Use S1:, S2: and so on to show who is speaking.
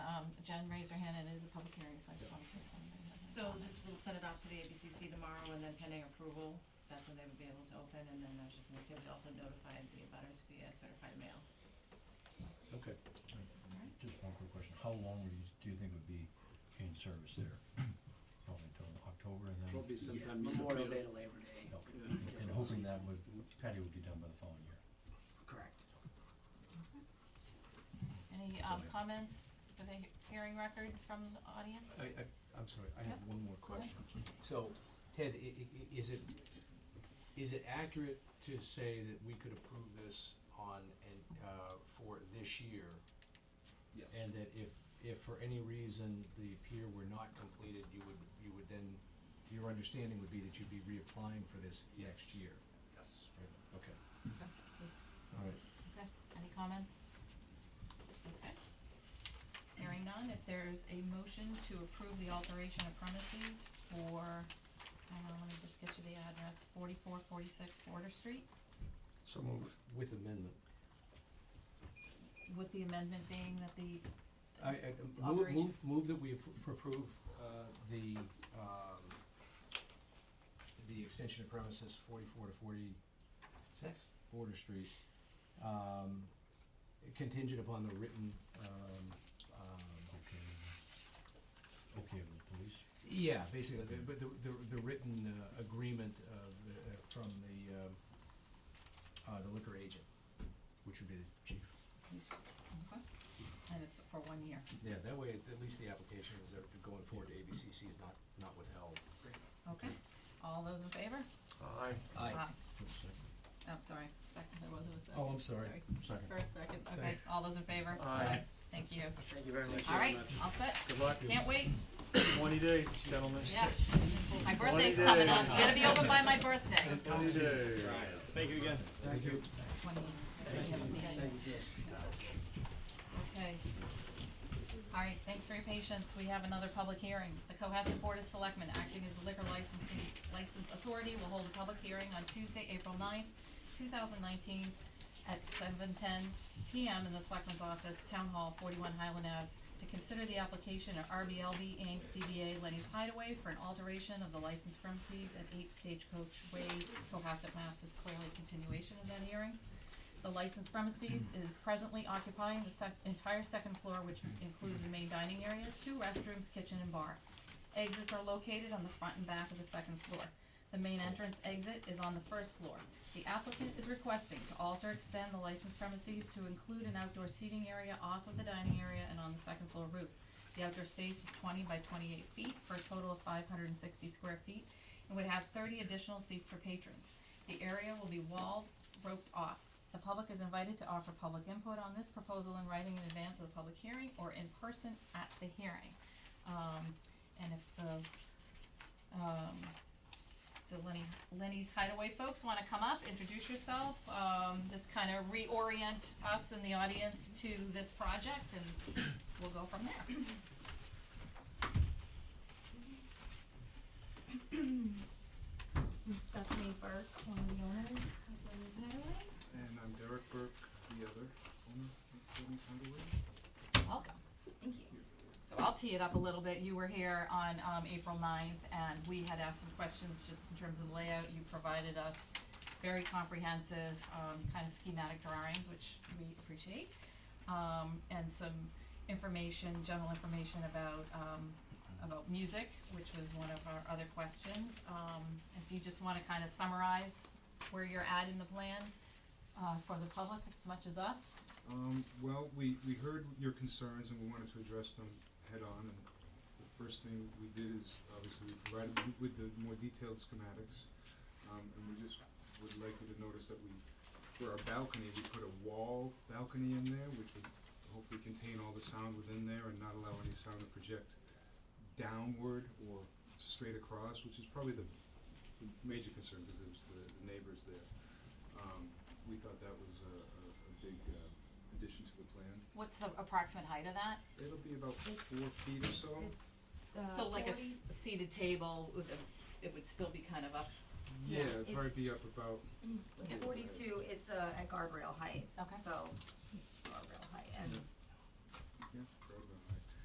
S1: Um, so I just wanna say twenty nine doesn't.
S2: So just we'll send it out to the ABCC tomorrow and then pending approval, that's when they would be able to open and then I was just gonna say we'd also notify the abutters via certified mail.
S3: Okay.
S4: Just one quick question, how long would you, do you think would be in service there? Probably until October and then?
S3: Probably
S5: Yeah,
S3: sometime. in the
S5: Memorial Day
S3: middle.
S5: to Labor Day.
S4: Okay.
S5: would be
S4: And
S5: different
S4: hoping that
S5: season.
S4: would, patio would be done by the following year.
S5: Correct.
S1: Any um comments for the he- hearing record from the audience?
S6: I, I, I'm sorry, I have
S1: Yeah.
S6: one more
S1: Go ahead.
S6: question. So, Ted, i- i- i- is it, is it accurate to say that we could approve this on, and, uh, for this year?
S3: Yes.
S6: And that if, if for any reason the pier were not completed, you would, you would then, your understanding would be that you'd be reapplying for this next year?
S3: Yes.
S6: Okay. All right.
S1: Okay, any comments? Okay. Hearing none, if there's a motion to approve the alteration of premises for, hang on, let me just get you the address, forty-four forty-six Border Street,
S6: So moved. With amendment.
S1: with the amendment being that the,
S6: I, I, move-
S1: Alteration.
S6: move, move that we appro- approve, uh, the, um, the extension of premises forty-four to forty-six Border Street, um, contingent upon the written, um, um,
S4: Okay. with- Okay with the police?
S6: yeah, basically, the- but the, the, the written, uh, agreement of, the- uh, from the, um, uh, the liquor agent, which would be the chief.
S1: okay, and it's for one year,
S6: Yeah, that way, at least the application is, uh, going forward to ABCC is not, not withheld.
S1: okay? All those in favor? Aye. I'm Oh, sorry, second, there wasn't a second.
S4: Oh, I'm sorry,
S1: Sorry.
S4: sorry.
S1: First, second, okay, all those in favor?
S3: Aye.
S1: Thank you.
S5: Thank you very much.
S1: All right,
S3: much.
S1: all set,
S3: Good luck.
S1: can't wait.
S3: Twenty days, gentlemen.
S1: Yeah. My birthday's
S3: days.
S1: coming up. You gotta be open by my birthday.
S3: Twenty days.
S5: Thank you again.
S6: Thank you.
S1: Okay. All right, thanks for your patience. We have another public hearing. The Cohasset Board of Selectmen, acting as the liquor licensing, license authority, will hold a public hearing on Tuesday, April ninth, two thousand nineteen, at seven ten PM in the Selectmen's Office, Town Hall, forty-one Highland Ave, to consider the application of RBLB Inc., DBA Lenny's Hideaway, for an alteration of the licensed premises at eight Stagecoach Way, Cohasset, Mass. Is clearly a continuation of that hearing. The licensed premises is presently occupying the sec- entire second floor, which includes the main dining area, two restrooms, kitchen, and bar. Exits are located on the front and back of the second floor. The main entrance exit is on the first floor. The applicant is requesting to alter, extend the licensed premises to include an outdoor seating area off of the dining area and on the second floor roof. The outdoor space is twenty by twenty-eight feet for a total of five hundred and sixty square feet and would have thirty additional seats for patrons. The area will be walled, roped off. The public is invited to offer public input on this proposal in writing in advance of the public hearing or in person at the hearing. Um, and if the, um, the Lenny, Lenny's Hideaway folks wanna come up, introduce yourself, um, just kinda reorient us and the audience to this project and we'll go from there.
S7: I'm Stephanie Burke, one of the owners of Lenny's Hideaway.
S8: And I'm Derek Burke, the other owner of Lenny's Hideaway.
S1: Welcome.
S7: Thank you.
S1: So I'll tee it up a little bit. You were here on um, April 9th, and we had asked some questions just in terms of the layout. You provided us very comprehensive, um, kind of schematic drawings, which we appreciate, um, and some information, general information about, um, about music, which was one of our other questions. Um, If you just want to kind of summarize where you're at in the plan uh, for the public as much as us.
S8: Um, well, we, we heard your concerns and we wanted to address them head on. And the first thing we did is obviously we provided you with the more detailed schematics. Um, and we just would like you to notice that we, for our balcony, we put a wall balcony in there, which would hopefully contain all the sound within there and not allow any sound to project downward or straight across, which is probably the the major concern because it was the, the neighbors there. Um, we thought that was a, a, a big uh, addition to the plan.
S1: What's the approximate height of that?
S8: It'll be about four feet or so.
S7: It's uh,
S1: So like a
S7: forty-
S1: s- seated table, with a- it would still be kind of up,
S8: Yeah, it'd probably be
S7: it's-
S8: up about
S7: Forty-two, it's uh, at guardrail height.
S1: Okay.
S7: So, guardrail height, and